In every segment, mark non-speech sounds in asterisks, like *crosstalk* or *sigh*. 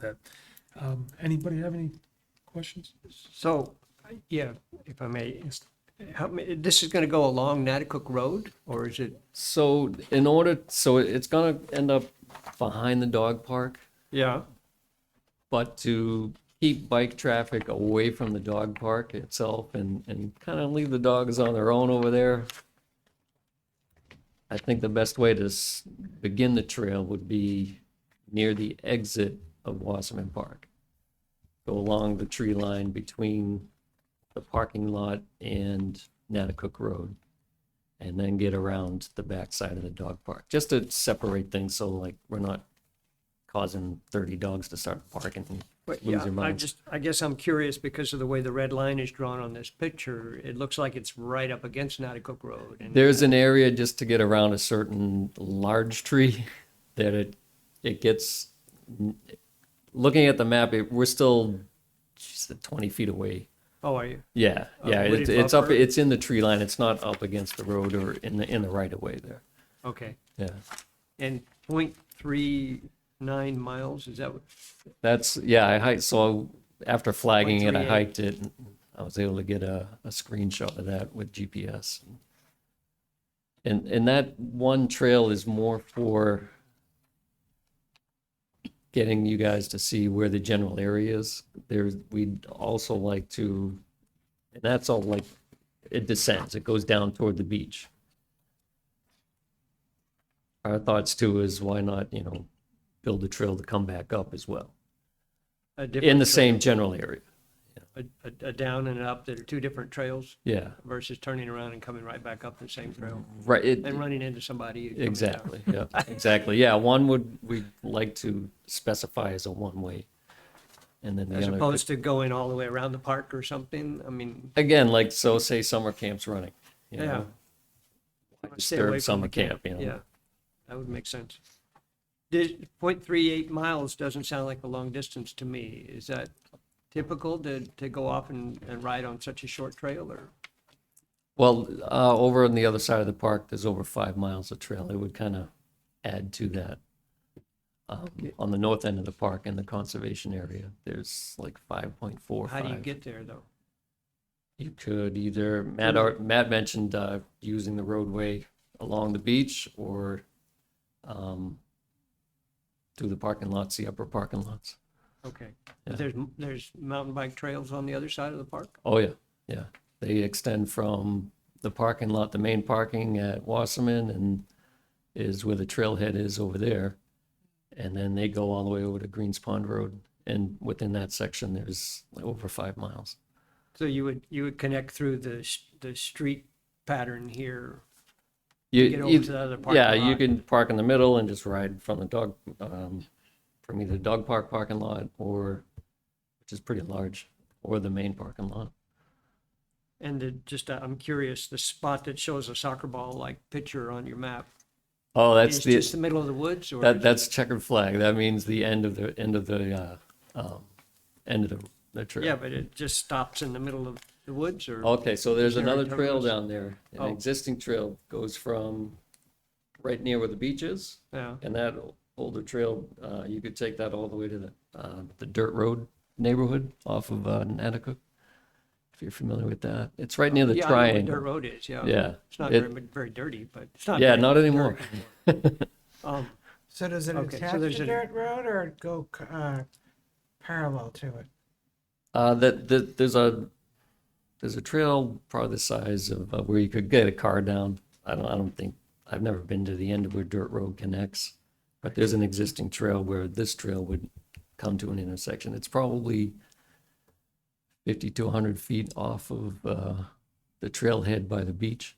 that. Um, Anybody have any questions? So, yeah, if I may, how, ma- this is gonna go along Natticook Road, or is it? So in order, so it's gonna end up behind the dog park, Yeah. but to keep bike traffic away from the dog park itself and, and kind of leave the dogs on their own over there. I think the best way to s- begin the trail would be near the exit of Wasserman Park. Go along the tree line between the parking lot and Natticook Road. and then get around the backside of the dog park, just to separate things, so like we're not causing thirty dogs to start barking and But lose yeah, their I minds. just, I guess I'm curious because of the way the red line is drawn on this picture. It looks like it's right up against Natticook Road. and- There's an area just to get around a certain large tree *laughs* that it, it gets, looking at the map, it, we're still just twenty feet away. Oh, are you? Yeah, Uh, yeah, would it's, it it's up, buffer? it's in the tree line, it's not up against the road or in the, in the right of way there, Okay. yeah. And point three nine miles, is that what? That's, yeah, I hiked, so after flagging it, I 0.38. hiked it, and I was able to get a, a screenshot of that with GPS. And, and that one trail is more for getting you guys to see where the general area is. There's, we'd also like to, and that's all like, it descends, it goes down toward the beach. Our thoughts too is why not, you know, build a trail to come back up as well a in different the same general trail, area. A, a- a down and an up, there are two different trails Yeah, versus turning around and coming right back up the same trail right. *laughs* it- and running into somebody. coming down. exactly. Yeah, exactly. Yeah, one would we like to specify as a one way, and then the As other. opposed to going all the way around the park or something. I mean, again, like so, say summer camp's running. You yeah. Know, Stay away from disturb summer the camp. You know. Yeah, that would make sense. Did, point three eight miles doesn't sound like a long distance to me. Is that typical to, to go off and, and ride on such a short trail or? Well, uh, over on the other side of the park, there's over five miles of trail. It would kind of add to that. Um, on the north end of the park in the conservation area, there's like 5.45. How do you get there though? You could either, Matt, ar- Matt mentioned uh, using the roadway along the beach or um, through the parking lots, the upper parking lots. Okay. Yeah. But There's, m- there's mountain bike trails on the other side of the park? Oh, yeah, yeah. They extend from the parking lot, the main parking at Wasserman and is where the trailhead is over there. And then they go all the way over to Greens Pond Road. And within that section, there's like over five miles. So you would, you would connect through the, s- the street pattern here, You, get you- over to the other parking E, Yeah, lot? you can park in the middle and just ride from the dog, um, from either dog park parking lot or, which is pretty large, or the main parking lot. And the- just, uh, I'm curious, the spot that shows a soccer ball-like picture on your map, Oh, that's is just the, the middle of the woods or? that, is- that's checkered flag. That means the end of the, end of the, uh, um, end of the, the Yeah, trail. but it just stops in the middle of the woods or? Okay, so there's there a another trail terminus? down there. An Oh. existing trail goes from right near where the beach is. Yeah, And that older trail, uh, you could take that all the way to the, uh, the dirt road neighborhood off of, uh, Natticook. If you're familiar with that, it's right near the Yeah, I know where Dirt triangle. road is, yeah. Yeah. It's not It- very, very dirty, but it's not. Yeah, very not dirty. anymore. *laughs* Um, So does it Okay, so attach to there's a- dirt road or go uh, parallel to it? Uh, that, that, there's a, there's a trail probably the size of, uh, where you could get a car down. I don't, I don't think, I've never been to the end of where dirt road connects. But there's an existing trail where this trail would come to an intersection. It's probably fifty to hundred feet off of, uh, the trailhead by the beach.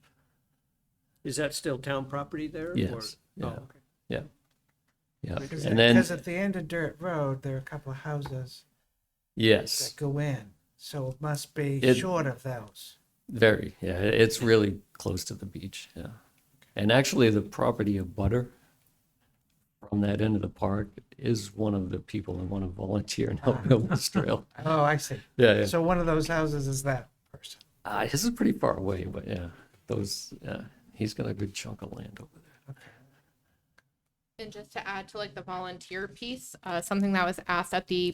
Is that still town property there? or- Yes, Oh, yeah. okay. Yeah. Yeah. Because And then, at the end of dirt road, there are a couple of houses that yes, go in, so it must be It- short of those. very, yeah, it's really close to the beach, yeah. And actually, the property of Butter from that end of the park is one of the people that want to volunteer and help build this *laughs* trail. Oh, I see. Yeah, yeah. So one of those houses is that person. Uh, his is pretty far away, but yeah, those, yeah, he's got a good chunk of land over there. And just to add to like the volunteer piece, uh, something that was asked at the